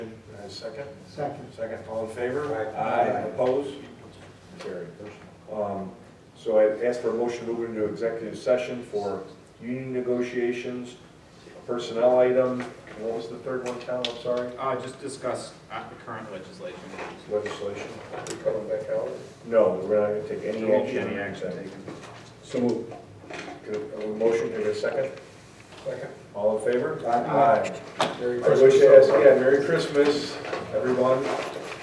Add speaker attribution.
Speaker 1: a Uh, second?
Speaker 2: Second.
Speaker 1: Second, all in favor?
Speaker 3: Aye.
Speaker 1: Opposed? Carried. Um, So I asked for a motion to move into executive session for union negotiations, personnel item, and what was the third one, Tom, I'm sorry?
Speaker 4: Uh, just discuss uh, the current legislation.
Speaker 1: Legislation?
Speaker 3: Are we coming back out?
Speaker 1: No, we're not going to take any
Speaker 4: There won't be
Speaker 1: action.
Speaker 4: any action taken.
Speaker 1: So moved. Could, a motion, could I get a second?
Speaker 3: Second.
Speaker 1: All in favor?
Speaker 3: Aye.
Speaker 1: I wish I asked, yeah, Merry Christmas, everyone.